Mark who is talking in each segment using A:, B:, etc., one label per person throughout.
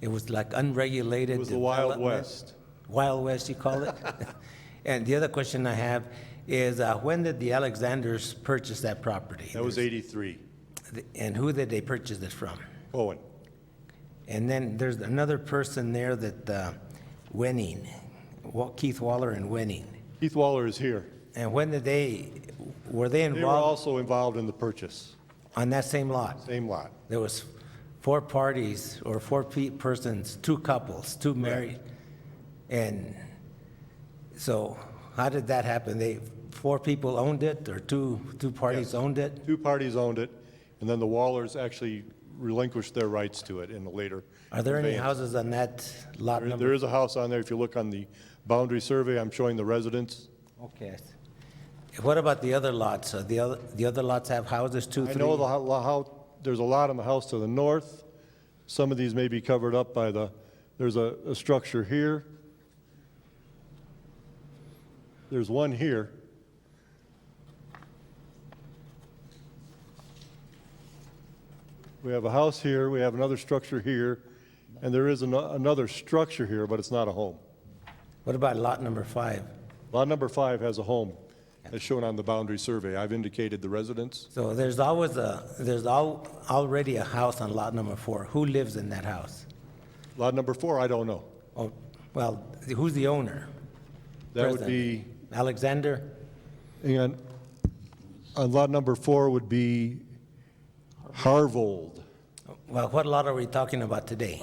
A: It was like unregulated.
B: It was the Wild
A: development.
B: West.
A: Wild West, you call it? And the other question I have is, uh, when did the Alexanders purchase that property?
B: That was 83.
A: And who did they purchase it from?
B: Owen,
A: And then there's another person there that, uh, Winning, Wa- Keith Waller and Winning.
B: Keith Waller is here.
A: And when did they, were they
B: They were
A: involved
B: also involved in the purchase,
A: on that same lot?
B: same lot.
A: There was four parties or four pe- persons, two couples, two married. And so how did that happen? They, four people owned it or two, two parties owned it?
B: Two parties owned it, and then the Wallers actually relinquished their rights to it in a later.
A: Are there any
B: conveyance.
A: houses on that lot
B: There- There
A: number?
B: is a house on there. If you look on the boundary survey, I'm showing the residence.
A: Okay. What about the other lots? Are the other, the other lots have houses, two,
B: I
A: three?
B: know the, how- how, there's a lot on the house to the north. Some of these may be covered up by the, there's a, a structure here. There's one here. We have a house here, we have another structure here, and there is an- another structure here, but it's not a home.
A: What about lot number five?
B: Lot number five has a home, as shown on the boundary survey. I've indicated the residence.
A: So there's always a, there's al- already a house on lot number four. Who lives in that house?
B: Lot number four, I don't know.
A: Oh, well, who's the owner?
B: That would
A: President.
B: be,
A: Alexander?
B: and on lot number four would be Harvold.
A: Well, what lot are we talking about today?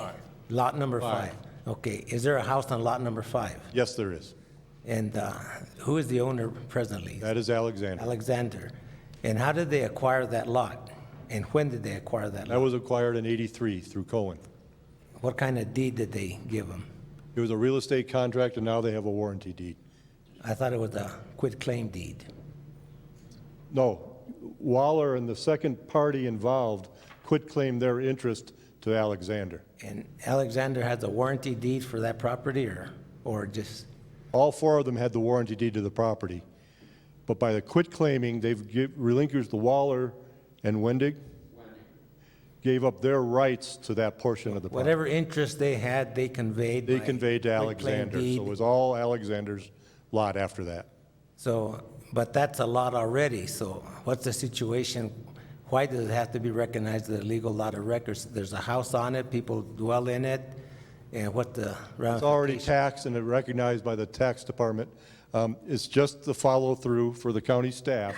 A: Lot number five. Okay, is there a house on lot number five?
B: Yes, there is.
A: And uh, who is the owner presently?
B: That is Alexander.
A: Alexander. And how did they acquire that lot? And when did they acquire that
B: That
A: lot?
B: was acquired in 83 through Cohen.
A: What kind of deed did they give them?
B: It was a real estate contract, and now they have a warranty deed.
A: I thought it was a quit claim deed.
B: No, Waller and the second party involved quit claim their interest to Alexander.
A: And Alexander has a warranty deed for that property or, or just,
B: All four of them had the warranty deed to the property, but by the quit claiming, they've gi- relinquished the Waller and Wendig, gave up their rights to that portion of the property.
A: whatever interest they had, they conveyed
B: They
A: by
B: conveyed to
A: quit claim
B: Alexander, so it
A: deed.
B: was all Alexander's lot after that.
A: So, but that's a lot already, so what's the situation? Why does it have to be recognized as a legal lot of records? There's a house on it, people dwell in it, and what the,
B: It's already taxed and recognized by the tax department. Um, It's just the follow-through for the county staff,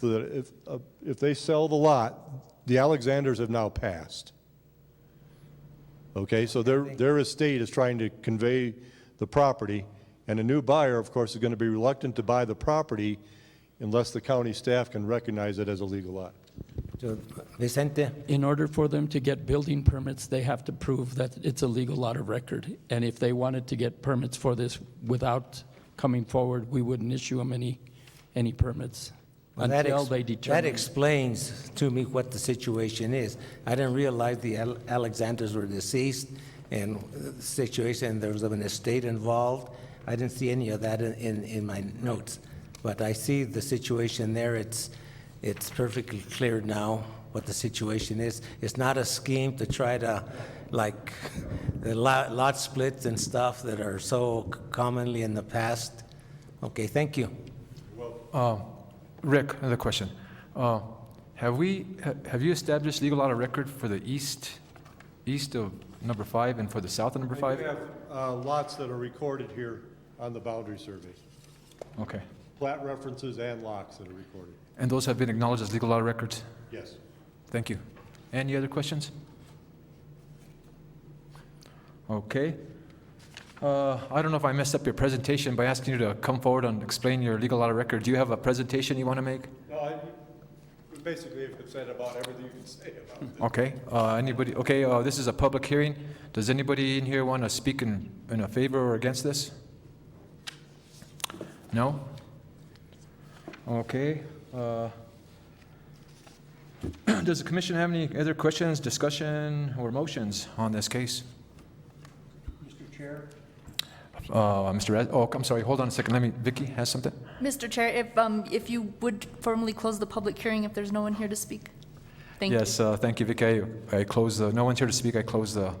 B: so that if, uh, if they sell the lot, the Alexanders have now passed. Okay, so their, their estate is trying to convey the property, and a new buyer, of course, is going to be reluctant to buy the property unless the county staff can recognize it as a legal lot.
A: So, Vicente,
C: In order for them to get building permits, they have to prove that it's a legal lot of record. And if they wanted to get permits for this without coming forward, we wouldn't issue them any, any permits
A: well, that
C: until
A: ex-
C: they
A: that
C: determine.
A: explains to me what the situation is. I didn't realize the Al- Alexanders were deceased, and the situation, there was an estate involved. I didn't see any of that in- in, in my notes. But I see the situation there, it's, it's perfectly clear now what the situation is. It's not a scheme to try to, like, the lot, lot splits and stuff that are so commonly in the past. Okay, thank you.
D: Uh, Rick, another question. Uh, Have we, ha- have you established legal lot of record for the east, east of number five and for the south of number
B: I
D: five?
B: do have uh, lots that are recorded here on the boundary survey,
D: Okay.
B: plat references and locks that are recorded.
D: And those have been acknowledged as legal lot of records?
B: Yes.
D: Thank you. Any other questions? Okay. Uh, I don't know if I messed up your presentation by asking you to come forward and explain your legal lot of record. Do you have a presentation you want to make?
B: No, I, we basically have said about everything you can say about it.
D: Okay, uh, anybody, okay, uh, this is a public hearing. Does anybody in here want to speak in, in a favor or against this? No? Okay. uh, Does the commission have any other questions, discussion, or motions on this case?
E: Mr. Chair?
D: Uh, Mr. Raz, oh, I'm sorry, hold on a second, let me, Vicky has something?
F: Mr. Chair, if, um, if you would formally close the public hearing if there's no one here to speak? Thank you.
D: Yes, uh, thank you, Vicky. I- I close the, no one's here to speak, I close the